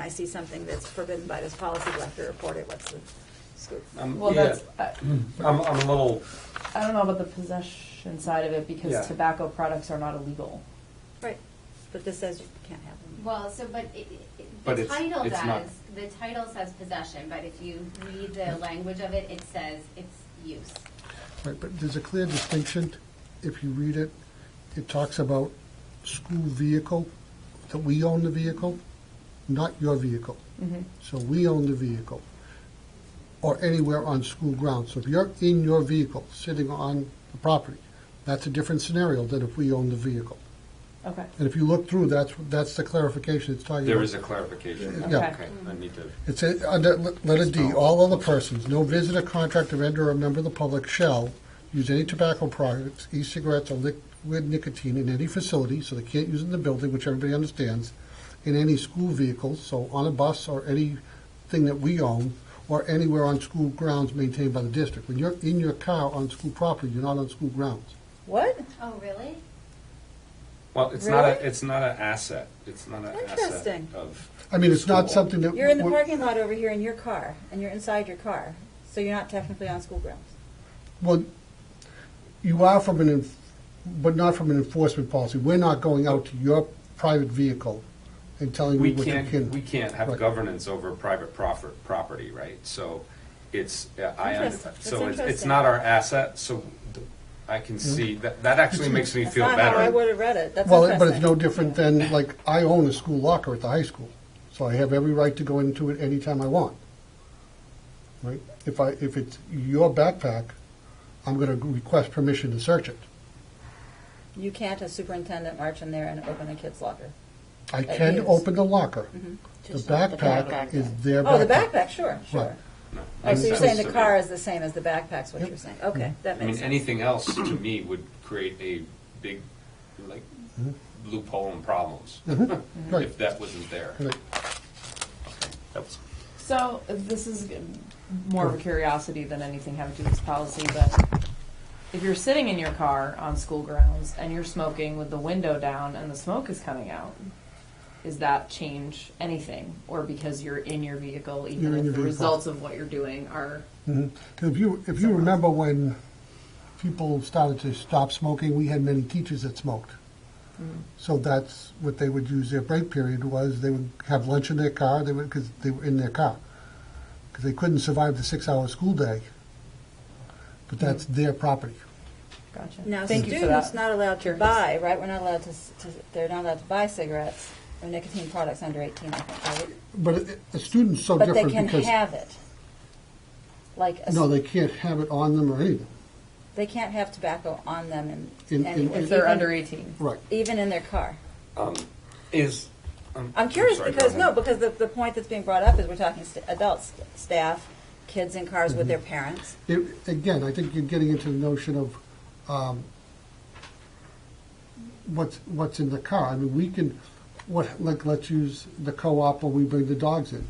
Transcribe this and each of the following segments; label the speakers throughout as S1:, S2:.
S1: I see something that's forbidden by this policy, we'll have to report it, what's the scoop?
S2: Um,
S3: Well,
S2: yeah,
S3: that's, I,
S2: I'm, I'm a little,
S3: I don't know about the possession side of it because
S2: Yeah.
S3: tobacco products are not illegal.
S1: Right, but this says you can't have them.
S4: Well, so, but it, it,
S2: But
S4: the
S2: it's-
S4: title
S2: it's not-
S4: does, the title says possession, but if you read the language of it, it says it's use.
S5: Right, but there's a clear distinction, if you read it, it talks about school vehicle, that we own the vehicle, not your vehicle. So we own the vehicle, or anywhere on school grounds. So if you're in your vehicle, sitting on the property, that's a different scenario than if we own the vehicle.
S3: Okay.
S5: And if you look through, that's, that's the clarification it's talking about.
S2: there is a clarification.
S5: Yeah.
S2: Okay, I need to.
S5: It says, under le- letter D, all other persons, no visitor, contractor, vendor, or member of the public shall use any tobacco products, e-cigarettes, or liquid nicotine in any facility, so they can't use it in the building, which everybody understands, in any school vehicle, so on a bus or anything that we own, or anywhere on school grounds maintained by the district. When you're in your car on school property, you're not on school grounds.
S1: What?
S4: Oh, really?
S2: Well, it's not a,
S1: Really?
S2: it's not an asset. It's not an asset
S1: Interesting.
S2: of.
S5: I mean, it's not
S2: school.
S5: something that.
S1: You're in the
S5: we're-
S1: parking lot over here in your car, and you're inside your car, so you're not technically on school grounds.
S5: Well, you are from an, enf- but not from an enforcement policy. We're not going out to your private vehicle and telling
S2: We
S5: you what you
S2: can't,
S5: can.
S2: we can't have
S5: Right.
S2: governance over private proper- property, right? So it's, uh, I, un-
S1: Interesting. That's
S2: so it's- it's
S1: interesting.
S2: not our asset, so th- I can see, that, that actually makes me
S1: That's
S2: feel
S1: not how I would
S2: better.
S1: have read it, that's
S5: Well, but it's no
S1: interesting.
S5: different than, like, I own a school locker at the high school, so I have every right to go into it anytime I want. Right? If I, if it's your backpack, I'm gonna request permission to search it.
S1: You can't as superintendent march in there and open a kid's locker.
S5: I
S1: That
S5: can
S1: is- Mm-hmm.
S5: open the locker. The
S6: Just not the
S5: backpack
S6: backpack.
S5: is their backpack.
S1: Oh, the backpack, sure,
S5: Right.
S1: sure.
S2: No,
S1: Oh, so you're saying
S2: makes sense
S1: the
S2: to me.
S1: car is the same as the backpack's what
S5: Yep.
S1: you're saying? Okay, that
S2: I mean,
S1: makes sense.
S2: anything else to me would create a big, like, loophole and problems.
S5: Right.
S2: If that wasn't there.
S5: Right.
S2: That was-
S3: So this is g- more of a curiosity than anything having to do with this policy, but if you're sitting in your car on school grounds and you're smoking with the window down and the smoke is coming out, is that change anything? Or because you're in your vehicle, even
S5: You're in
S3: if the
S5: your vehicle.
S3: results of what you're doing are
S5: Because if you, if you remember when people started to stop smoking, we had many teachers that smoked.
S1: Mm.
S5: So that's what they would use their break period was they would have lunch in their car, they would, because they were in their car. Because they couldn't survive the six-hour school day.
S1: Mm.
S5: But that's their property.
S3: gotcha.
S1: Now,
S3: Thank you for
S1: students
S3: that.
S1: not allowed to
S3: Curious.
S1: buy, right? We're not allowed to, s- to, they're not allowed to buy cigarettes or nicotine products under 18, I think, right?
S5: But a- a student's so
S1: But they
S5: different
S1: can
S5: because,
S1: have it. Like, a s-
S5: no, they can't have it on them or anything.
S1: they can't have tobacco on them in-
S5: In- in-
S1: anywhere,
S3: If they're
S1: even-
S3: under 18.
S5: Right.
S1: Even in their car.
S2: Is. um,
S1: I'm curious
S2: sorry, go
S1: because,
S2: ahead.
S1: no, because the, the point that's being brought up is we're talking st- adults, staff, kids in cars
S5: Mm-hmm.
S1: with their parents.
S5: It- Again, I think you're getting into the notion of um, what's, what's in the car. I mean, we can, what, like, let's use the co-op when we bring the dogs in.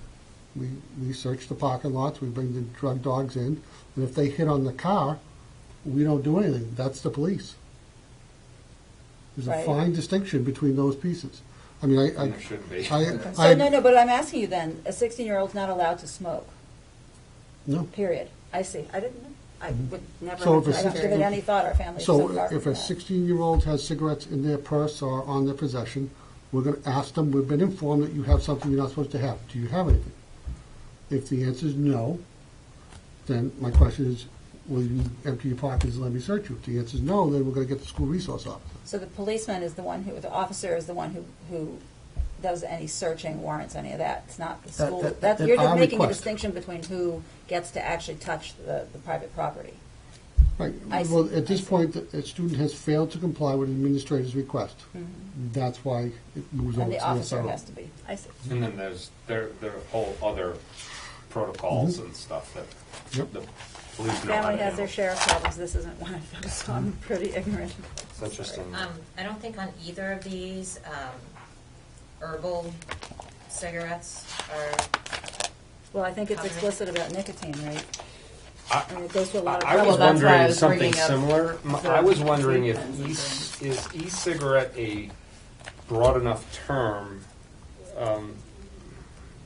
S5: We, we search the parking lots, we bring the drug dogs in, and if they hit on the car, we don't do anything. That's the police. There's a
S1: Right.
S5: fine distinction between those pieces. I mean, I, I.
S2: There should be.
S5: I-
S1: So,
S5: I-
S1: no, no, but I'm asking you then, a 16 year old's not allowed to smoke,
S5: No.
S1: period. I see. I didn't know. I would never,
S5: Mm-hmm. So if a
S1: I don't give it
S5: 16
S1: any thought. Our family's so,
S5: So
S1: far
S5: if
S1: from
S5: a
S1: that.
S5: 16-year-old has cigarettes in their purse or on their possession, we're going to ask them, we've been informed that you have something you're not supposed to have. Do you have anything? If the answer is no, then my question is, will you empty your pockets and let me search you? If the answer is no, then we're going to get the school resource officer.
S1: So the policeman is the one who, the officer is the one who, who does any searching, warrants any of that. It's not the
S5: That-
S1: school.
S5: that-
S1: That's,
S5: that
S1: you're
S5: our
S1: just making a
S5: request.
S1: distinction between who gets to actually touch the, the private property.
S5: Right,
S1: I see,
S5: well, at
S1: I
S5: this
S1: see.
S5: point, the- a student has failed to comply with an administrator's request. That's why it moves
S1: Mm-hmm. And
S5: over to
S1: the
S5: the
S1: officer
S5: SRO.
S1: has to be. I see.
S2: And then there's, there, there are whole other protocols and stuff that
S5: Yep.
S2: the police know how
S1: Family
S2: to
S1: has
S2: handle.
S1: their share of problems. This isn't one of them, so I'm pretty ignorant.
S2: It's interesting.
S6: Um, I don't think on either of these, um, herbal cigarettes are,
S1: Well, I think it's
S6: Covered.
S1: explicit about nicotine, right?
S2: I-
S1: I mean, it goes to a lot of
S2: I was
S3: Well, that's
S1: problems.
S3: why I
S2: wondering
S3: was
S2: something
S3: bringing up
S2: similar. M-
S3: the
S2: I was wondering if
S3: treatments and
S2: e- is e-cigarette a broad enough term um,